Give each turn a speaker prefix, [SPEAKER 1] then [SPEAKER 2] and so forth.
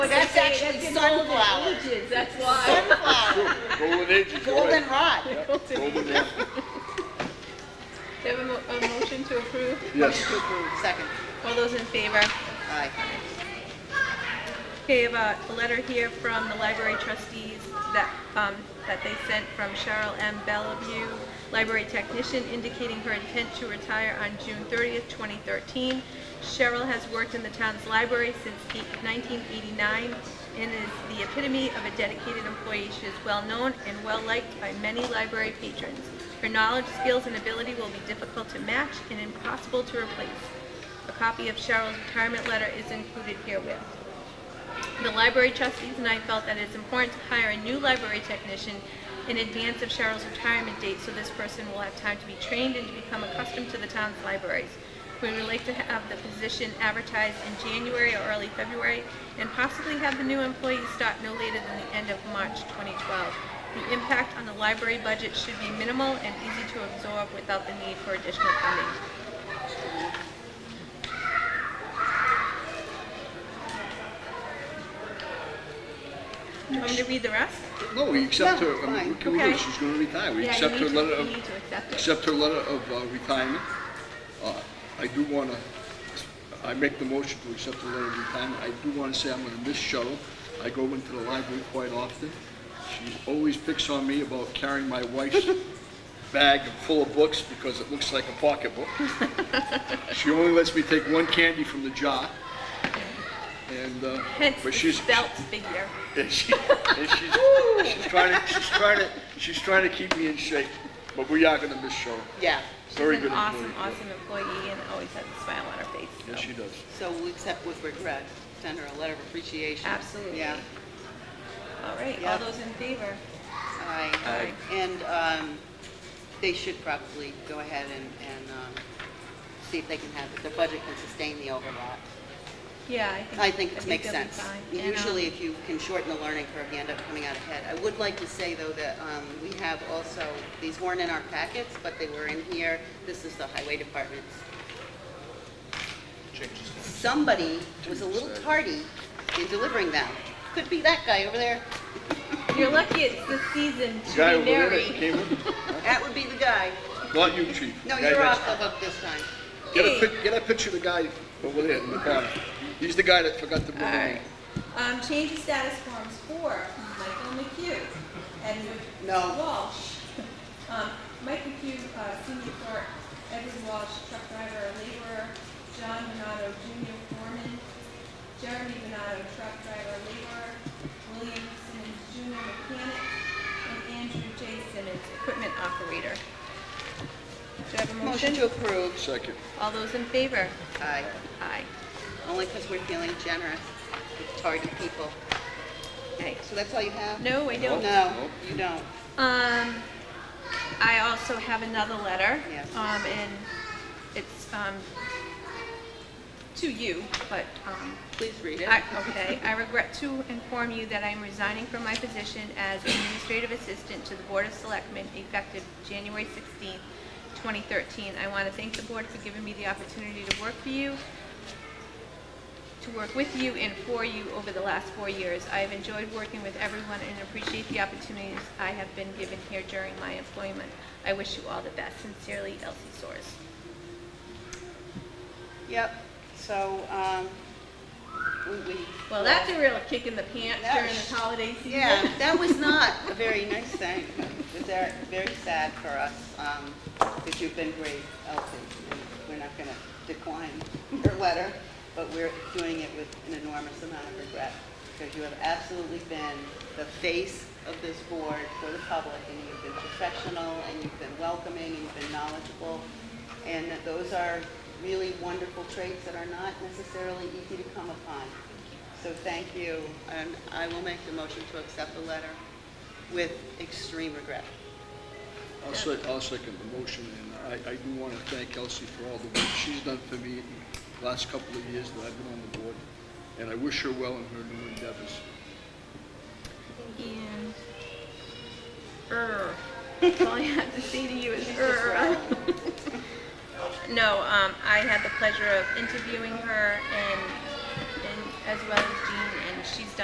[SPEAKER 1] sunflower,
[SPEAKER 2] Ages, that's why.
[SPEAKER 1] sunflower,
[SPEAKER 3] Golden ages, you're right.
[SPEAKER 1] goldenrod.
[SPEAKER 3] Yep, golden age.
[SPEAKER 2] Do you have a, mo- a motion to approve?
[SPEAKER 3] Yes,
[SPEAKER 1] Second,
[SPEAKER 2] All those in favor?
[SPEAKER 1] aye.
[SPEAKER 2] Okay, I have a, a letter here from the library trustees that, um, that they sent from Cheryl M. Bellevue, library technician, indicating her intent to retire on June 30th, 2013. Cheryl has worked in the town's library since eight- 1989 and is the epitome of a dedicated employee. She is well-known and well-liked by many library patrons. Her knowledge, skills, and ability will be difficult to match and impossible to replace. A copy of Cheryl's retirement letter is included herewith. The library trustees and I felt that it's important to hire a new library technician in advance of Cheryl's retirement date, so this person will have time to be trained and to become accustomed to the town's libraries. We would like to have the position advertised in January or early February, and possibly have the new employee start no later than the end of March 2012. The impact on the library budget should be minimal and easy to absorb without the need for additional funding. Do you want me to read the rest?
[SPEAKER 3] no, we accept
[SPEAKER 1] Yeah,
[SPEAKER 3] her, I mean,
[SPEAKER 1] fine.
[SPEAKER 3] we can move her,
[SPEAKER 2] Okay.
[SPEAKER 3] she's gonna retire, we
[SPEAKER 2] Yeah, you
[SPEAKER 3] accept her
[SPEAKER 2] need to-
[SPEAKER 3] letter
[SPEAKER 2] You
[SPEAKER 3] of,
[SPEAKER 2] need to accept it.
[SPEAKER 3] accept her letter of uh, retirement. Uh, I do wanna, I make the motion to accept her letter of retirement, I do wanna say I'm gonna miss Cheryl. I go into the library quite often, she always picks on me about carrying my wife's bag full of books because it looks like a pocketbook. She only lets me take one candy from the jar. And, uh,
[SPEAKER 2] Hence the
[SPEAKER 3] but she's,
[SPEAKER 2] spelt figure.
[SPEAKER 3] and she, and she's, she's trying to, she's trying to, she's trying to keep me in shape, but we are gonna miss Cheryl.
[SPEAKER 1] Yeah,
[SPEAKER 3] Very
[SPEAKER 2] She's
[SPEAKER 3] good
[SPEAKER 2] an awesome,
[SPEAKER 3] employee.
[SPEAKER 2] awesome employee and always has a smile on her face. so.
[SPEAKER 3] Yes, she does.
[SPEAKER 1] so we accept with regret, send her a letter of appreciation.
[SPEAKER 2] Absolutely.
[SPEAKER 1] Yeah,
[SPEAKER 2] All right,
[SPEAKER 1] Yeah.
[SPEAKER 2] all those in favor?
[SPEAKER 1] aye.
[SPEAKER 2] Aye.
[SPEAKER 1] And um, they should probably go ahead and, and um, see if they can have, if their budget can sustain the overlap.
[SPEAKER 2] Yeah, I think.
[SPEAKER 1] I think it makes
[SPEAKER 2] they'll be
[SPEAKER 1] sense.
[SPEAKER 2] fine. And, um,
[SPEAKER 1] Usually, if you can shorten the learning curve, you end up coming out ahead. I would like to say, though, that um, we have also, these weren't in our packets, but they were in here. This is the highway department's. Somebody was a little tardy in delivering them. Could be that guy over there.
[SPEAKER 2] You're lucky it's the season
[SPEAKER 3] Guy
[SPEAKER 2] to
[SPEAKER 3] over
[SPEAKER 2] be
[SPEAKER 3] there that
[SPEAKER 2] married.
[SPEAKER 3] came in,
[SPEAKER 1] That would be the guy.
[SPEAKER 3] not you, chief.
[SPEAKER 1] No,
[SPEAKER 3] Guy
[SPEAKER 1] you're
[SPEAKER 3] next-
[SPEAKER 1] off the hook this time.
[SPEAKER 3] Get a pic, get a picture of the guy over there in the corner. He's the guy that forgot to bring
[SPEAKER 2] All
[SPEAKER 3] the
[SPEAKER 2] right.
[SPEAKER 3] name.
[SPEAKER 2] Um, change of status forms for Michael McHugh, Edward
[SPEAKER 1] No.
[SPEAKER 2] Walsh. Um, Mike McHugh, uh, senior clerk, Edward Walsh, truck driver, laborer, John Venado, junior foreman, Jeremy Venado, truck driver, laborer, William Simmons, junior mechanic, and Andrew J. Simmons, equipment operator. Do you have a motion?
[SPEAKER 1] Motion to approve.
[SPEAKER 3] Second.
[SPEAKER 2] All those in favor?
[SPEAKER 1] Aye.
[SPEAKER 2] Aye.
[SPEAKER 1] Only because we're feeling generous with tardy people.
[SPEAKER 2] Aye.
[SPEAKER 1] So that's all you have?
[SPEAKER 2] No, I don't.
[SPEAKER 1] No, you don't.
[SPEAKER 2] Um, I also have another letter.
[SPEAKER 1] Yes.
[SPEAKER 2] Um, and it's, um, to you, but, um,
[SPEAKER 1] Please read it.
[SPEAKER 2] I- Okay, I regret to inform you that I am resigning from my position as administrative assistant to the Board of Selectmen effective January 16, 2013. I want to thank the board for giving me the opportunity to work for you, to work with you and for you over the last four years. I have enjoyed working with everyone and appreciate the opportunities I have been given here during my employment. I wish you all the best. Sincerely, Elsie Soares.
[SPEAKER 1] Yep, so, um, we, we.
[SPEAKER 2] Well, that's a real kick in the pants
[SPEAKER 1] That
[SPEAKER 2] during
[SPEAKER 1] was-
[SPEAKER 2] the holiday season.
[SPEAKER 1] Yeah, that was not a very nice thing. It was very, very sad for us, um, because you've been great, Elsie, and we're not gonna decline your letter, but we're doing it with an enormous amount of regret, because you have absolutely been the face of this board for the public, and you've been professional, and you've been welcoming, and you've been knowledgeable, and that those are really wonderful traits that are not necessarily easy to come upon. So thank you, and I will make the motion to accept the letter with extreme regret.
[SPEAKER 3] I'll sec, I'll second the motion, and I, I do want to thank Elsie for all the work she's done for me in the last couple of years that I've been on the board, and I wish her well in her new endeavors.
[SPEAKER 2] And er. That's all I have to say to you is er. No, um, I had the pleasure of interviewing her and, and as well as Jean, and she's done